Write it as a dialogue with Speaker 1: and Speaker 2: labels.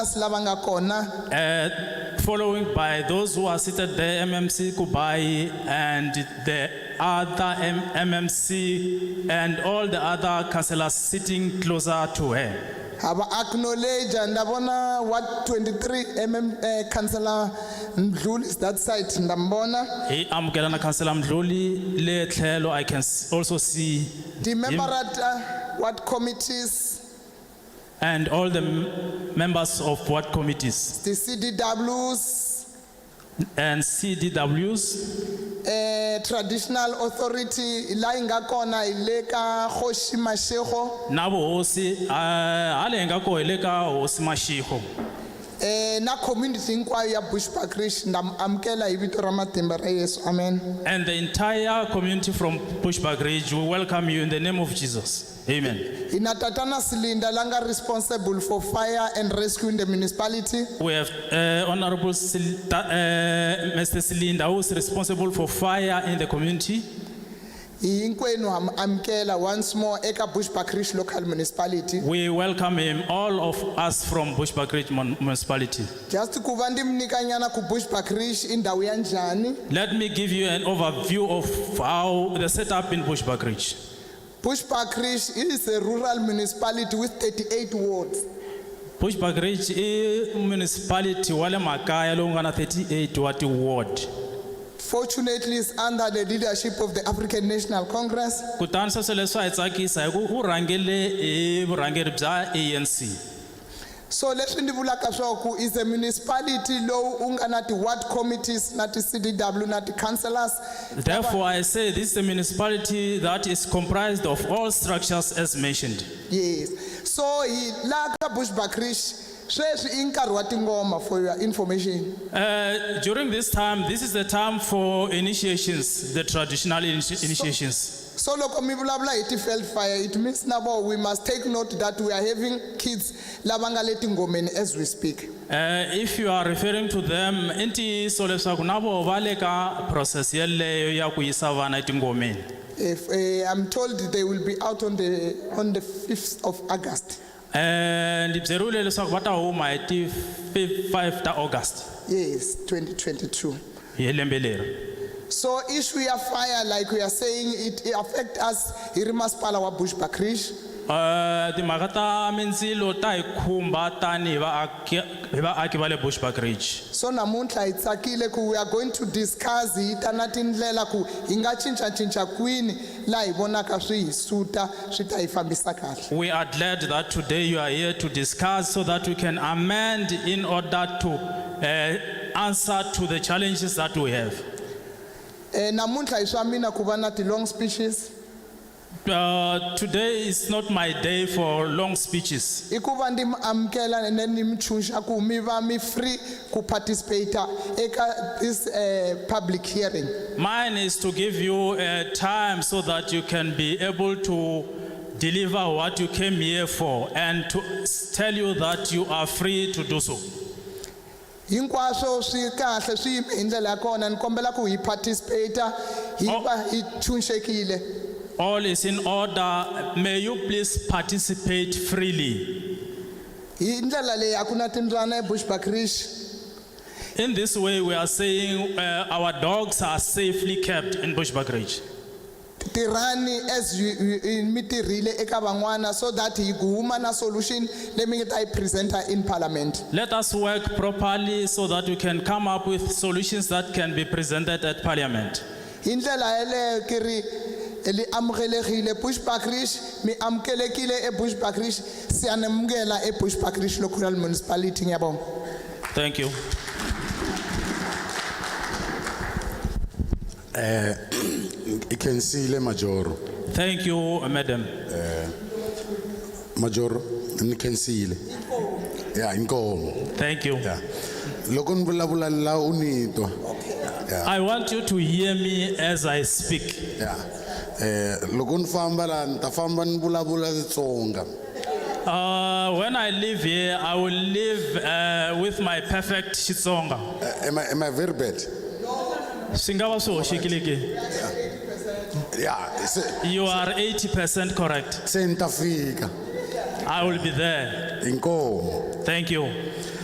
Speaker 1: lava nga kona
Speaker 2: Uh, following by those who are seated there, MMC Kubai and the other M- MMC and all the other councillors sitting closer to her.
Speaker 1: ha va acknowledge nda vona wa 23 mm eh, councillor mdluli is that side nda mi vona
Speaker 2: Hi amukela na councillor Mdluli le tlhelo I can s- also see
Speaker 1: ti-memberata what committees
Speaker 2: and all the m- members of ward committees
Speaker 1: ti-cdws
Speaker 2: and CDWs
Speaker 1: eh traditional authority la inga kona ile ka Kgoshi Mashego
Speaker 2: na vuhosi ah, hale hi nga ko hi le ka hosi Mashego.
Speaker 1: eh na community hinkwayo ya Bushbuck Ridge ndam amkela hi vito ra matimba ra Yesu amen
Speaker 2: And the entire community from Bushback Ridge, we welcome you in the name of Jesus. Amen.
Speaker 1: ina tatana Silinda langa responsible for fire and rescue in the municipality
Speaker 2: We have uh, Honorable Sil- Ta- uh, Mr. Silinda, who is responsible for fire in the community.
Speaker 1: hinkwenu ha mu amkela once more eka Bushbuck Ridge local municipality
Speaker 2: We welcome him, all of us from Bushback Ridge Mun- municipality.
Speaker 1: just ku va ndi mnikanyana ku Bushbuck Ridge i ndhawu ya njhani
Speaker 2: Let me give you an overview of how the setup in Bushback Ridge.
Speaker 1: Bushbuck Ridge is a rural municipality with 38 wards
Speaker 2: Bushback Ridge i municipality wa le makaya lowu nga na 38 wa ti-ward.
Speaker 1: fortunately is under the leadership of the African National Congress.
Speaker 2: Kutani sweswo leswi a hi tsakisa hi ku u rhangele hi vurhangeri bya ANC.
Speaker 1: So leswi ndi vulaka swaku is a municipality lowu u nga na ti-ward committees na ti-CDW na ti-councillors
Speaker 2: Therefore, I say this is a municipality that is comprised of all structures as mentioned.
Speaker 1: yes so hi laha ka bushback rich sweswi i nkarhi wa tingoma for your information
Speaker 2: Uh, during this time, this is the time for initiations, the traditional initi- initiations.
Speaker 1: so loko mi vulavula hi ti-feld fire it means na vo we must take note that we are having kids lava nga le tingomeni as we speak
Speaker 2: Uh, if you are referring to them, i ntiyiso leswaku na voho va le ka process yeleyo ya ku yisa vana etingomeni.
Speaker 1: if eh, i'm told they will be out on the on the 5th of august
Speaker 2: Uh, Ndi byeriwile leswaku va ta huma hi ti 5 ta August
Speaker 1: Yes, 2022.
Speaker 2: hi lembe leri.
Speaker 1: So issue of fire, like we are saying, it, it affect us here masipala wa Bushbuck Ridge.
Speaker 2: Uh, timhaka ta mindzilo ta hi khumba tani hi vaaki hi vaaki va le bushback ridge
Speaker 1: So namuntlha hi tsakile ku we are going to discuss hi ta na tindlela ku hi nga cincacinca kwini laha hi vonaka swi hi suta swi ta hi fambisa kahle.
Speaker 2: we are glad that today you are here to discuss so that we can amend in order to uh, answer to the challenges that we have
Speaker 1: Eh, namuntlha hi swa mina ku va na ti-long speeches
Speaker 2: uh, today is not my day for long speeches
Speaker 1: i ku va ndi mi amukela ene ni mi tshunxa ku mi va mi free ku participate-a eka this eh, public hearing.
Speaker 2: mine is to give you uh, time so that you can be able to deliver what you came here for and to s- tell you that you are free to do so
Speaker 1: hinkwaswo swi kahle swi yime hi ndlela ya kona ni kombela ku hi participate hi
Speaker 2: Oh.
Speaker 1: va hi tshunxekile
Speaker 2: All is in order. May you please participate freely.
Speaker 1: hi ndlela leyi a ku na e tindlwana ebushbuck rish
Speaker 2: In this way, we are saying uh, our dogs are safely kept in Bushbuck Ridge.
Speaker 1: tirhani as you- you- you- mi tirhile eka van'wana so that hi ku huma na solution leyi mi nga ta yi presenta in parliament
Speaker 2: Let us work properly so that we can come up with solutions that can be presented at Parliament.
Speaker 1: hi ndlela yeleyo ki ri li amukelekile bushbuck rish mi amukelekile ebushbuck rish siyanamukela ebushbuck rish local municipality ngiyabonga
Speaker 2: Thank you.
Speaker 3: ikhensile majoro
Speaker 2: Thank you, Madam.
Speaker 3: majoro ni khensile ya inkomo
Speaker 2: Thank you.
Speaker 3: ya loko ni vulavula la u ni twa
Speaker 2: I want you to hear me as I speak.
Speaker 3: ya eh loko ni famba la ni ta famba ni vulavula Xitsonga
Speaker 2: Uh, when I leave here, I will leave uh, with my perfect Shitsonga.
Speaker 3: Eh, am I am I very bad
Speaker 2: Singawa so shikiliki.
Speaker 3: ya se
Speaker 2: You are 80% correct.
Speaker 3: se ni ta fika
Speaker 2: I will be there.
Speaker 3: inkomo
Speaker 2: Thank you.